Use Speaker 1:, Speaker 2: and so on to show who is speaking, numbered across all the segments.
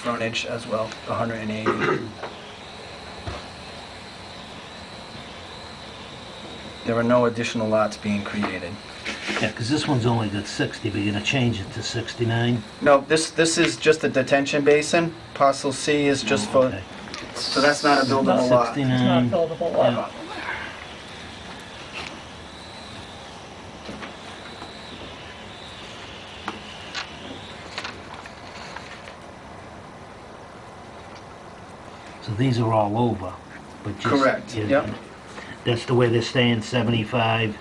Speaker 1: frontage as well, 180. There are no additional lots being created.
Speaker 2: Yeah, because this one's only got 60, but you're going to change it to 69?
Speaker 1: No, this, this is just a detention basin. Parcel C is just for,
Speaker 2: Oh, Okay.
Speaker 1: so that's not a buildable
Speaker 2: About
Speaker 1: lot.
Speaker 2: 69.
Speaker 3: buildable
Speaker 2: Mm. yeah. So these are all over, but just...
Speaker 1: Correct,
Speaker 2: yeah,
Speaker 1: yep.
Speaker 2: That's the way they're staying, 75,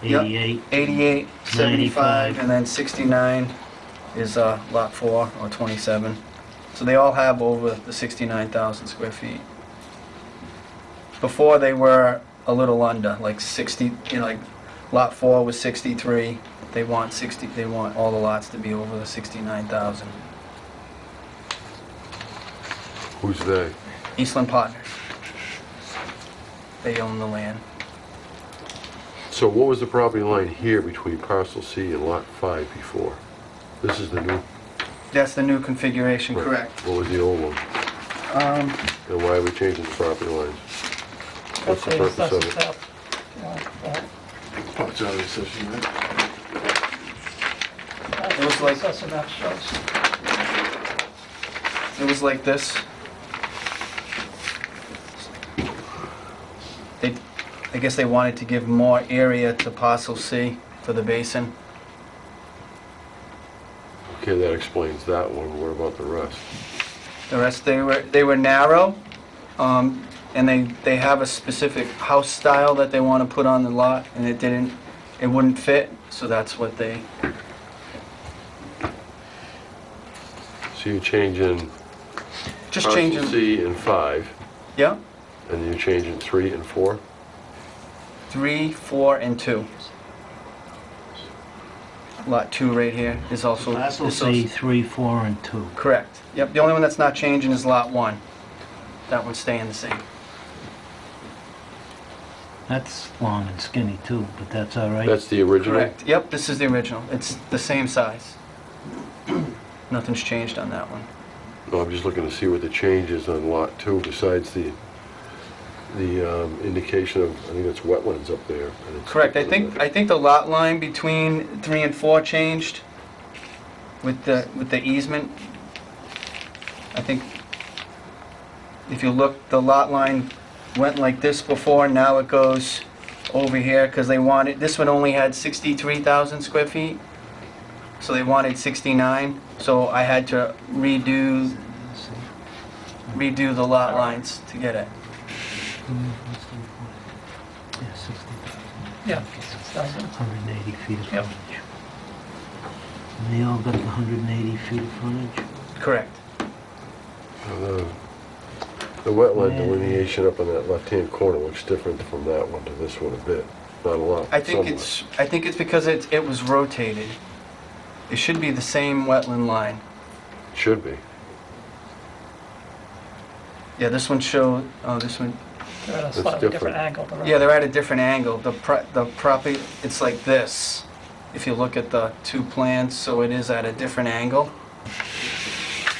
Speaker 1: Yep.
Speaker 2: 88?
Speaker 1: 88, 75,
Speaker 2: 95.
Speaker 1: and then 69 is uh, Lot 4, or 27. So they all have over the 69,000 square feet. Before, they were a little under, like 60, you know, like, Lot 4 was 63. They want 60, they want all the lots to be over the 69,000.
Speaker 4: Who's they?
Speaker 1: Eastland Partners. They own the land.
Speaker 4: So what was the property line here between parcel C and lot five before? This is the new...
Speaker 1: That's the new configuration, correct?
Speaker 4: What was the old one?
Speaker 1: Um,
Speaker 4: And why are we changing the property lines? What's the purpose of it?
Speaker 5: Parts of the assessment, right?
Speaker 1: It was like-
Speaker 3: map shows.
Speaker 1: It was like this. They, I guess they wanted to give more area to parcel C for the basin.
Speaker 4: Okay, that explains that one. What about the rest?
Speaker 1: The rest, they were, they were narrow, um, and they, they have a specific house style that they want to put on the lot, and it didn't, it wouldn't fit, so that's what they,
Speaker 4: So you're changing
Speaker 1: just
Speaker 4: parcel
Speaker 1: changing,
Speaker 4: C and five,
Speaker 1: yeah?
Speaker 4: and you're changing three and four?
Speaker 1: Three, four, and two. Lot two right here is also.
Speaker 2: Parcel
Speaker 1: is also-
Speaker 2: C, 3, 4, and 2.
Speaker 1: Correct. Yep, the only one that's not changing is Lot 1. That one's staying the same.
Speaker 2: That's long and skinny too, but that's all right.
Speaker 4: That's the original?
Speaker 1: Correct. Yep, this is the original. It's the same size. Nothing's changed on that one.
Speaker 4: No, I'm just looking to see what the change is on lot two besides the, the um, indication of, I think it's wetlands up there. and it's-
Speaker 1: Correct. I think, I think the lot line between 3 and 4 changed with the, with the easement. I think if you look, the lot line went like this before, now it goes over here because they wanted, this one only had 63,000 square feet. So they wanted 69, so I had to redo, redo the lot lines to get it.
Speaker 2: Yeah, 60,000,
Speaker 3: Yeah, it's dozen.
Speaker 2: 180 feet of
Speaker 3: Yep.
Speaker 2: frontage. And they all got the 180 feet of frontage?
Speaker 1: Correct.
Speaker 4: Uh, The wetland delineation up on that left-hand corner looks different from that one to this one a bit, not a lot.
Speaker 1: I think
Speaker 4: somewhat.
Speaker 1: it's, I think it's because it, it was rotated. It should be the same wetland line.
Speaker 4: Should be.
Speaker 1: Yeah, this one showed, oh, this one,
Speaker 3: They're at a
Speaker 4: That's
Speaker 3: slightly different
Speaker 4: different.
Speaker 3: angle. the
Speaker 1: yeah,
Speaker 3: road.
Speaker 1: they're at a different angle. The pro, the property, it's like this. If you look at the two plans, so it is at a different angle.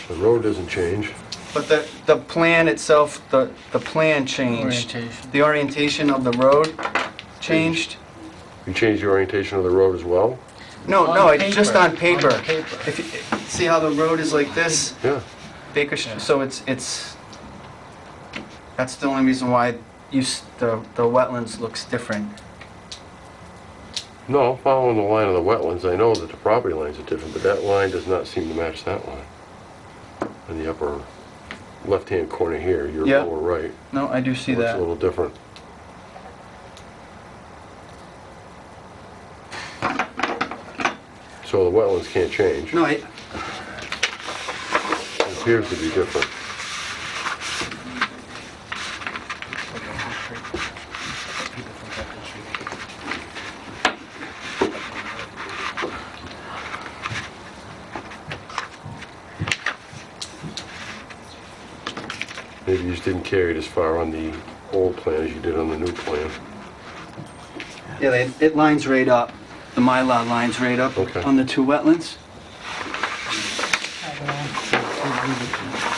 Speaker 4: The road doesn't change.
Speaker 1: But the, the plan itself, the, the plan changed. The orientation of the road changed.
Speaker 4: You change the orientation of the road as well?
Speaker 1: No,
Speaker 6: On
Speaker 1: no, it's just
Speaker 6: paper,
Speaker 1: on paper.
Speaker 6: on paper.
Speaker 1: If, you- see how the road is like this?
Speaker 4: Yeah.
Speaker 1: Baker Street, so it's, it's, that's the only reason why you, s- the, the wetlands looks different.
Speaker 4: No, I'm following the line of the wetlands. I know that the property lines are different, but that line does not seem to match that line. In the upper left-hand corner here, your
Speaker 1: Yeah.
Speaker 4: lower right,
Speaker 1: No, I do see
Speaker 4: looks Oh, a
Speaker 1: that.
Speaker 4: little different. So the wetlands can't change.
Speaker 1: No, I,
Speaker 4: It appears to be different. Maybe you just didn't carry it as far on the old plan as you did on the new plan.
Speaker 1: yeah, they- it lines right up, the Mylar lines right up
Speaker 4: Okay.
Speaker 1: on the two wetlands.
Speaker 3: And, uh,
Speaker 2: It would but